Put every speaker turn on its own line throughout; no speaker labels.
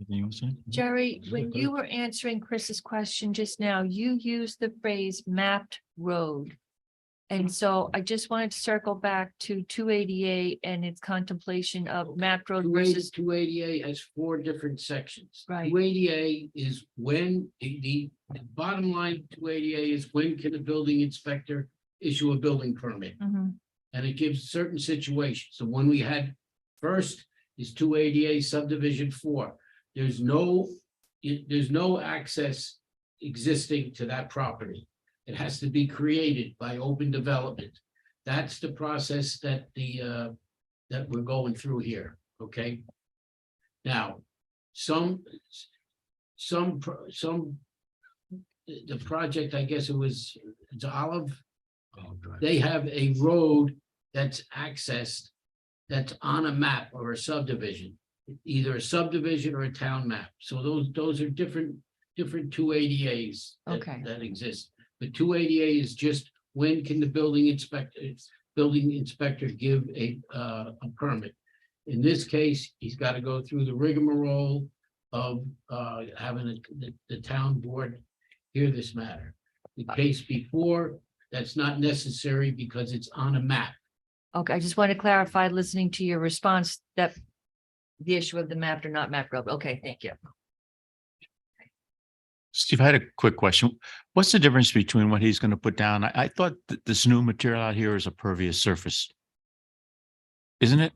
Anything else? Ann?
Jerry, when
Okay.
you were answering Chris's question just now, you used the phrase mapped road. And so I just wanted to circle back to two eighty-eight and its contemplation of mapped road
Two eighty,
versus,
two eighty-eight has four different sections.
Right.
Two eighty-eight is when, the, the the bottom line, two eighty-eight is when can a building inspector issue a building permit?
Mhm,
And it gives certain situations. The one we had first is two eighty-eight subdivision four. There's no, it- there's no access existing to that property. It has to be created by open development. That's the process that the, uh, that we're going through here, okay? Now, some, some, pro- some, the the project, I guess it was, it's Olive,
Oh, drive.
they have a road that's accessed, that's on a map or a subdivision. Either a subdivision or a town map, so those, those are different, different two ADAs. that-
Okay.
That exist, but two ADA is just, when can the building inspector, building inspector give a, uh, a permit? In this case, he's gotta go through the rigmarole of, uh, having the- the, the town board hear this matter. The case before that's not necessary because it's on a map.
okay, I just want to clarify, listening to your response, that the issue of the mapped or not mapped road, okay, thank
Um,
you.
Steve, I had a quick question. What's the difference between what he's going to put down? I, I thought that this new material out here is a pervious surface. Isn't it?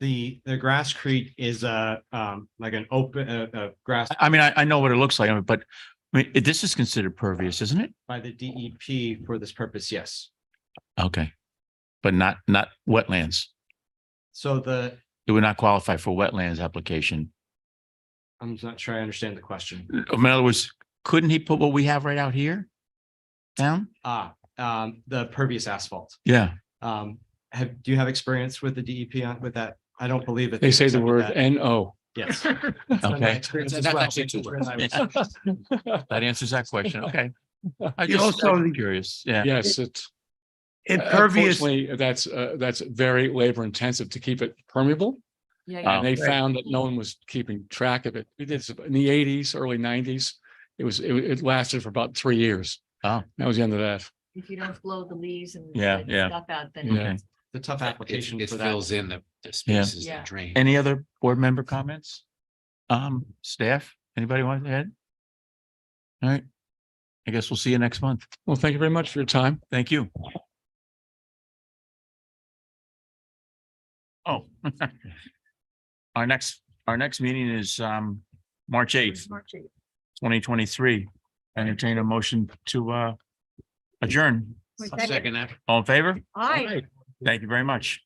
The, the Grasscrete is a, um, like an open, uh, uh, grass
I- I mean, I, I know what it looks like, but I mean, it- this is considered pervious, isn't it?
by the DEP for this purpose, yes.
Okay. But not, not wetlands.
So the,
It would not qualify for wetlands application.
I'm not sure I understand the question.
Mm.
In other words, couldn't he put what we have right out here? Down?
Ah, um, the pervious asphalt.
Yeah.
Um, have, do you have experience with the DEP on, with that? I don't believe it.
They say the
accepted
word
that.
NO.
Yes.
Okay.
Experience as
That's
well.
actually two words.
That's
Yeah. That answers that question. Okay. I
You
just
also-
I'm curious. Yeah. Uh,
Yes, it's. uh,
Impervious,
Unfortunately, That's, uh, that's very labor intensive to keep it permeable.
Yeah,
Uh,
yeah,
And they
Right.
found that no one was keeping track of it. It is in the eighties, early nineties. It was, it, it lasted for about three years.
Oh.
That was the end of that.
if you don't blow the leaves and.
Yeah,
let
yeah.
Stuff out, then.
Okay.
it's-
The tough application
It
for that.
fills in the, the
Yeah.
spaces
Yeah.
that drain.
Any other board member comments? Um, staff, anybody want to add? All right. I guess we'll see you next month.
Well, thank you very much for your time.
Thank you. Oh. Our next, our next meeting is um, March eighth,
March eighth.
twenty twenty-three. Entertain a motion to uh adjourn.
Wait,
Second that.
All in favor?
Aye.
Thank you very much.